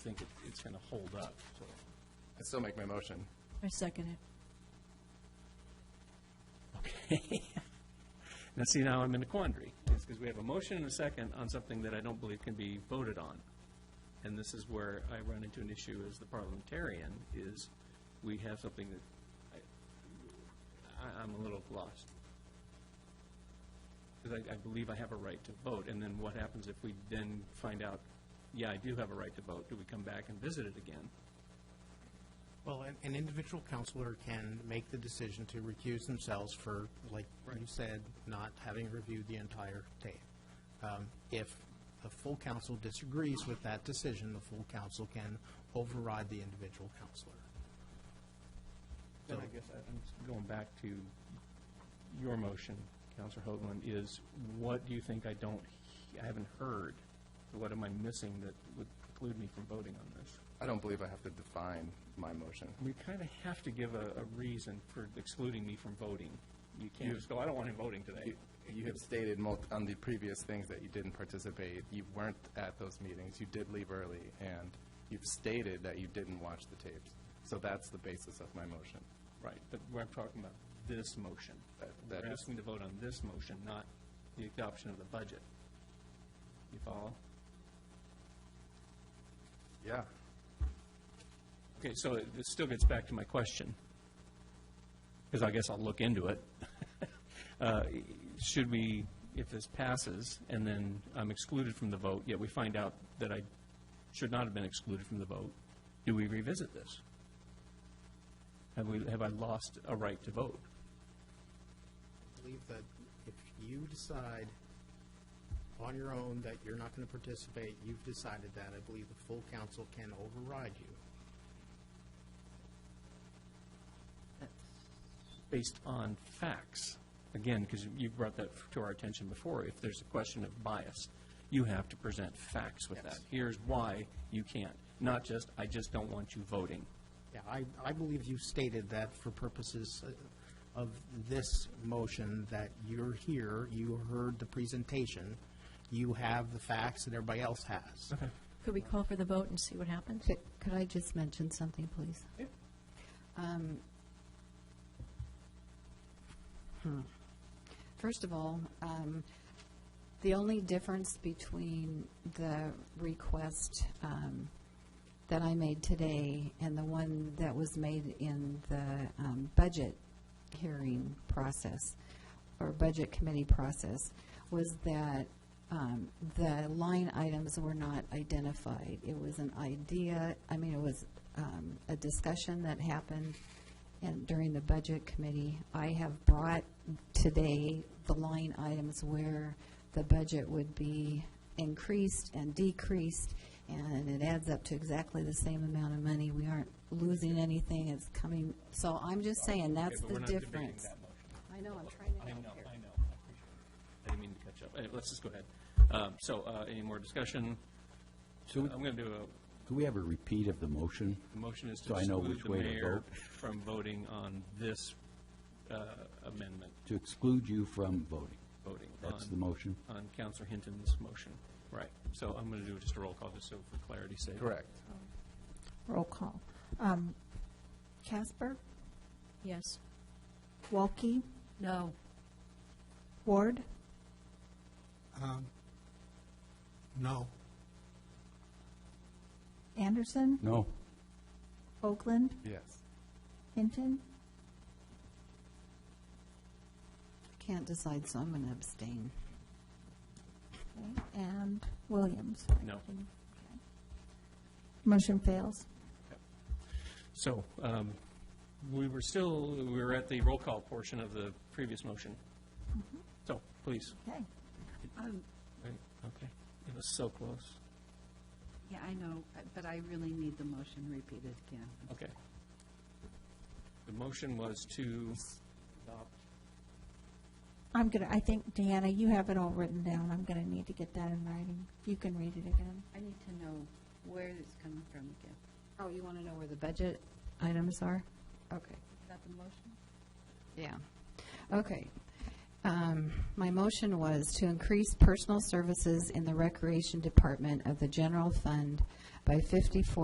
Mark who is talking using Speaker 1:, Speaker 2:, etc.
Speaker 1: think it- it's going to hold up, so.
Speaker 2: I still make my motion.
Speaker 3: I second it.
Speaker 1: Okay. Now, see, now I'm in a quandary. It's because we have a motion and a second on something that I don't believe can be voted on. And this is where I run into an issue as the parliamentarian, is we have something that I- I, I'm a little lost. Because I, I believe I have a right to vote, and then what happens if we then find out, yeah, I do have a right to vote? Do we come back and visit it again?
Speaker 4: Well, an, an individual counselor can make the decision to recuse themselves for, like you said, not having reviewed the entire tape. Um, If the full council disagrees with that decision, the full council can override the individual counselor.
Speaker 1: Then I guess I- I'm just going back to your motion, Counselor Hoagland, is what do you think I don't, he- I haven't heard? What am I missing that would preclude me from voting on this?
Speaker 2: I don't believe I have to define my motion.
Speaker 1: We kind of have to give a, a reason for excluding me from voting. You can't just go, I don't want him voting today.
Speaker 2: You- You have stated mul- on the previous things that you didn't participate, you weren't at those meetings, you did leave early, and you've stated that you didn't watch the tapes. So that's the basis of my motion.
Speaker 1: Right, but we're talking about this motion.
Speaker 2: That- that
Speaker 1: We're
Speaker 2: is-
Speaker 1: asking to vote on this motion, not the adoption of the budget. You follow?
Speaker 2: Yeah.
Speaker 1: Okay, so it it still gets back to my question, because I guess I'll look into it. Uh, Should we, if this passes, and then I'm excluded from the vote, yet we find out that I should not have been excluded from the vote, do we revisit this? Have we, have I lost a right to vote?
Speaker 4: I believe that if you decide on your own that you're not going to participate, you've decided that, I believe the full council can override you.
Speaker 1: Based on facts, again, because you brought that to our attention before, if there's a question of bias, you have to present facts with that.
Speaker 4: Yes.
Speaker 1: Here's why you can't, not just, I just don't want you voting.
Speaker 4: Yeah, I, I believe you stated that for purposes uh, of this motion, that you're here, you heard the presentation, you have the facts that everybody else has.
Speaker 3: Could we call for the vote and see what happens?
Speaker 5: Could could I just mention something, please? Um, hmm. First of all, um, the only difference between the request um, that I made today and the one that was made in the um, budget hearing process or budget committee process was that um, the line items were not identified. It was an idea, I mean, it was um, a discussion that happened and during the budget committee. I have brought today the line items where the budget would be increased and decreased, and it adds up to exactly the same amount of money. We aren't losing anything, it's coming, so I'm just saying, that's
Speaker 1: Okay, but
Speaker 5: the
Speaker 1: we're not debating
Speaker 5: difference.
Speaker 1: that motion.
Speaker 5: I know, I'm trying to
Speaker 1: I
Speaker 5: help
Speaker 1: know,
Speaker 5: here.
Speaker 1: I know, I appreciate it. I didn't mean to catch up. Anyway, Let's just go ahead. Um, So, uh, any more discussion? Uh,
Speaker 6: So we-
Speaker 1: I'm going to do a,
Speaker 6: Do we have a repeat of the motion?
Speaker 1: the motion is to
Speaker 6: So I know
Speaker 1: exclude
Speaker 6: which
Speaker 1: the
Speaker 6: way to
Speaker 1: mayor
Speaker 6: vote.
Speaker 1: from voting on this uh, amendment,
Speaker 6: To exclude you from voting?
Speaker 1: voting
Speaker 6: That's the
Speaker 1: on,
Speaker 6: motion?
Speaker 1: on Counselor Hinton's motion. Right. So I'm going to do just a roll call, just so for clarity's sake.
Speaker 2: Correct.
Speaker 7: Roll call. Um, Casper,
Speaker 3: Yes.
Speaker 7: Walke,
Speaker 3: No.
Speaker 7: Ward,
Speaker 4: No.
Speaker 7: Anderson,
Speaker 6: No?
Speaker 7: Oakland,
Speaker 2: Yes.
Speaker 7: Hinton,
Speaker 5: Can't decide, so I'm going to abstain.
Speaker 7: okay, and Williams.
Speaker 1: No.
Speaker 7: Motion fails.
Speaker 1: So, um, we were still, we were at the roll call portion of the previous motion. So, please.
Speaker 7: Okay.
Speaker 5: Um,
Speaker 1: Right, Okay. It was so close.
Speaker 8: Yeah, I know, uh, but I really need the motion repeated again.
Speaker 1: Okay. The motion was to,
Speaker 7: I'm gonna, I think, Deanna, you have it all written down. I'm gonna need to get that in writing. You can read it again.
Speaker 8: I need to know where it's coming from again.
Speaker 5: Oh, you want to know where the budget items are? Okay.
Speaker 8: Is that the motion?
Speaker 5: Yeah. Okay. Um, My motion was to increase personal services in the Recreation Department of the General Fund by fifty-four